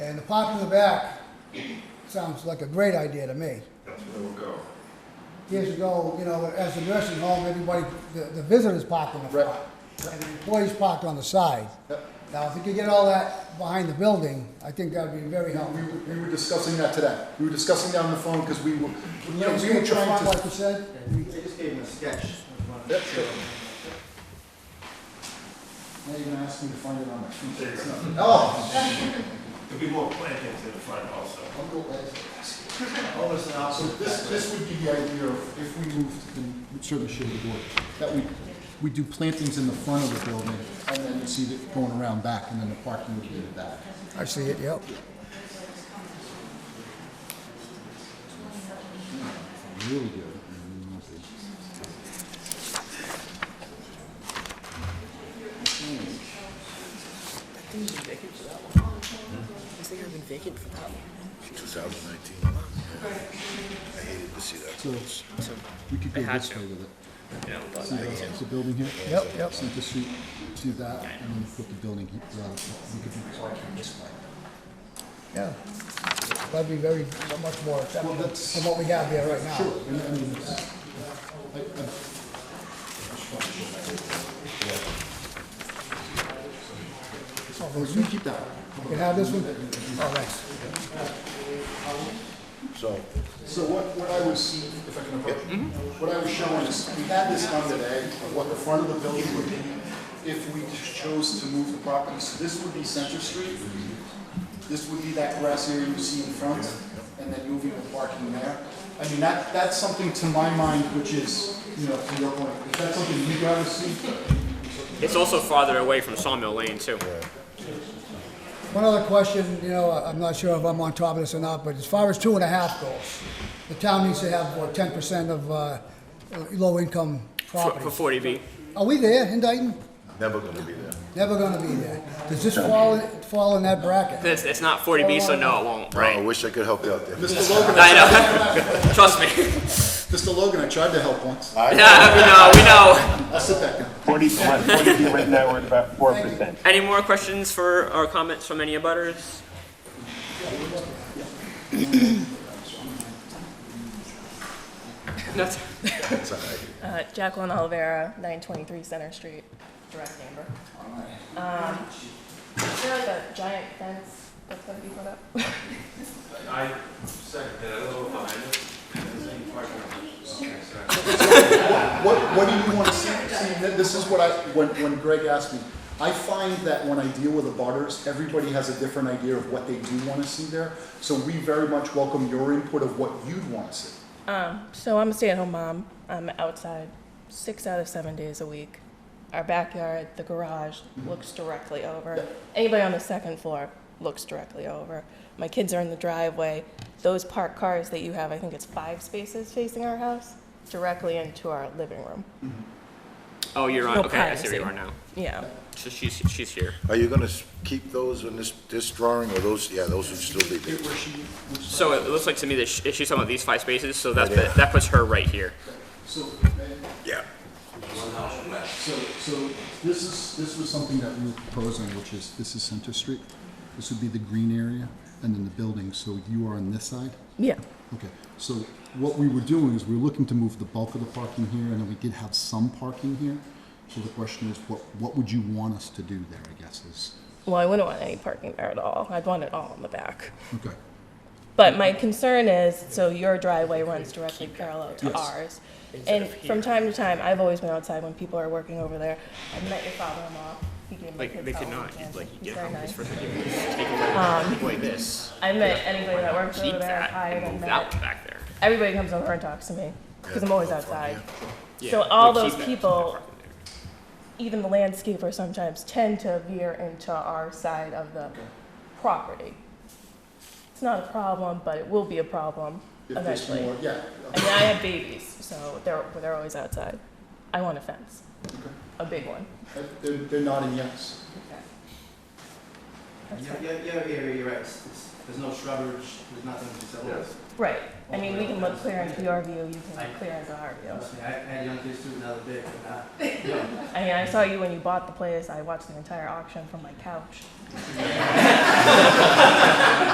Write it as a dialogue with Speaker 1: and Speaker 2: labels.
Speaker 1: the park in the back sounds like a great idea to me.
Speaker 2: That's where we'll go.
Speaker 1: Years ago, you know, as a nursing home, everybody, the, the visitors parked in the front. And the employees parked on the side.
Speaker 3: Yep.
Speaker 1: Now, if you could get all that behind the building, I think that would be very
Speaker 3: We,
Speaker 1: helpful.
Speaker 3: were- we were discussing that today. We were discussing that on the phone because we were, you know, we were
Speaker 1: Landscape the front,
Speaker 3: trying
Speaker 1: Like
Speaker 3: to.
Speaker 1: you said,
Speaker 4: I just gave him a sketch. of one of the
Speaker 3: Yep, sure.
Speaker 4: children.
Speaker 3: Now you're gonna ask me to find it on my
Speaker 2: There you
Speaker 3: computer. It's
Speaker 2: go.
Speaker 3: not- Oh.
Speaker 2: There'll be more plantings in the front also.
Speaker 3: I'll go last.
Speaker 4: Almost an
Speaker 3: So
Speaker 4: opposite.
Speaker 3: this, this would be the idea of if we moved, and it certainly should have worked, that we, we do plantings in the front of the building and then you see it going around back and then the parking would be in the back.
Speaker 1: I see it, yep.
Speaker 3: Really good.
Speaker 5: Has they been vacant for that long?
Speaker 6: 2019. I hated to see that.
Speaker 3: So
Speaker 5: So,
Speaker 3: we could go
Speaker 5: It had
Speaker 3: this
Speaker 5: to.
Speaker 3: way with it.
Speaker 5: you know, but
Speaker 3: See uh, the, the building here?
Speaker 1: Yep, yep.
Speaker 3: So just shoot to that and then put the building, here, uh, we could do parking this way.
Speaker 1: Yeah. That'd be very, much more acceptable
Speaker 3: Well, that's-
Speaker 1: than what we have here right now.
Speaker 3: Sure, and I mean, it's- I- I-
Speaker 1: Oh,
Speaker 3: oh,
Speaker 1: those-
Speaker 3: you keep that.
Speaker 1: You can have this one? Oh, thanks.
Speaker 6: So,
Speaker 3: So what, what I was, if I can, approach- what I was showing is, we had this done today, of what the front of the building would be if we chose to move the property. So this would be Center Street, this would be that grass area you see in front, and then moving the parking there. I mean, that, that's something to my mind, which is, you know, to your point, is that something you guys see?
Speaker 5: It's also farther away from Sawmill Lane too.
Speaker 1: One other question, you know, I- I'm not sure if I'm on top of this or not, but as far as two and a half goes, the town needs to have, what, ten percent of, uh, low-income
Speaker 5: For, for
Speaker 1: properties.
Speaker 5: forty B.
Speaker 1: Are we there in Dayton?
Speaker 6: never gonna be there.
Speaker 1: Never gonna be there. Does this fall, fall in that bracket?
Speaker 5: It's, it's not forty B, so no, it won't,
Speaker 6: Oh, I
Speaker 5: right?
Speaker 6: wish I could help you out there.
Speaker 3: Mr. Logan,
Speaker 5: I know, trust me.
Speaker 3: Mr. Logan, I tried to help once.
Speaker 5: Yeah, we know, we know.
Speaker 3: I'll sit back down.
Speaker 7: Forty, forty, right now, we're at about four percent.
Speaker 5: Any more questions for, or comments from any abutters? That's,
Speaker 8: Uh, Jacqueline Olivera, 923 Center Street, direct neighbor. Um, Is there like a giant fence that's going to be put up?
Speaker 2: I second that, a little behind it.
Speaker 3: What, what do you want to see? See, th- this is what I, when, when Greg asked me, I find that when I deal with the butters, everybody has a different idea of what they do want to see there. So we very much welcome your input of what you'd want to see.
Speaker 8: So I'm a stay-at-home mom. I'm outside six out of seven days a week. Our backyard, the garage, looks directly over. Anybody on the second floor looks directly over. My kids are in the driveway. Those parked cars that you have, I think it's five spaces facing our house, directly into our living room.
Speaker 5: oh, you're on,
Speaker 8: No
Speaker 5: okay, I see where you are
Speaker 8: privacy.
Speaker 5: now.
Speaker 8: Yeah.
Speaker 5: So she's, she's here.
Speaker 6: Are you gonna s- keep those in this, this drawing or those, yeah, those would still be there?
Speaker 5: So it looks like to me that she- she's talking about these five spaces, so that's, that puts her right here.
Speaker 3: So,
Speaker 6: Yeah.
Speaker 3: so, so this is, this was something that we were proposing, which is, this is Center Street. This would be the green area and then the building. So you are on this side?
Speaker 8: Yeah.
Speaker 3: Okay, so what we were doing is we were looking to move the bulk of the parking here, and then we did have some parking here. So the question is, what, what would you want us to do there, I guess, is,
Speaker 8: Well, I wouldn't want any parking there at all. I'd want it all in the back.
Speaker 3: okay.
Speaker 8: But my concern is, so your driveway runs directly parallel to
Speaker 3: Yes.
Speaker 8: ours. And from time to time, I've always been outside when people are working over there. I met your father-in-law. He gave my
Speaker 5: Like,
Speaker 8: kids
Speaker 5: they
Speaker 8: all
Speaker 5: could not,
Speaker 8: weekend.
Speaker 5: like, you
Speaker 8: He's
Speaker 5: get
Speaker 8: very
Speaker 5: home, it's
Speaker 8: nice. Um,
Speaker 5: for taking away this,
Speaker 8: I met anybody that works
Speaker 5: keep
Speaker 8: over there.
Speaker 5: that,
Speaker 8: Hi,
Speaker 5: and
Speaker 8: and
Speaker 5: move
Speaker 8: met.
Speaker 5: that back there.
Speaker 8: Everybody comes over and talks to me because I'm always outside.
Speaker 5: Yeah,
Speaker 8: So all
Speaker 5: like,
Speaker 8: those
Speaker 5: keep that- keep that
Speaker 8: people,
Speaker 5: parking there.
Speaker 8: even the landscaper sometimes tend to veer into our side of the property. It's not a problem, but it will be a problem
Speaker 3: If there's
Speaker 8: eventually.
Speaker 3: more- Yeah,
Speaker 8: I mean, I have babies, so they're they're always outside. I want a fence, a big one.
Speaker 3: uh, they're, they're nodding yes.
Speaker 4: Yeah, yeah, yeah, yeah, you're right. It's- it's- There's no shrubbery, there's nothing to sell.
Speaker 2: Yes.
Speaker 8: Right. I mean, we can look clear into your view. You can
Speaker 4: I-
Speaker 8: look clear into our view.
Speaker 4: Trust me, I I had young kids too, now they're big, but uh, not.
Speaker 8: I mean, I saw you when you bought the place. I watched the entire auction from my couch.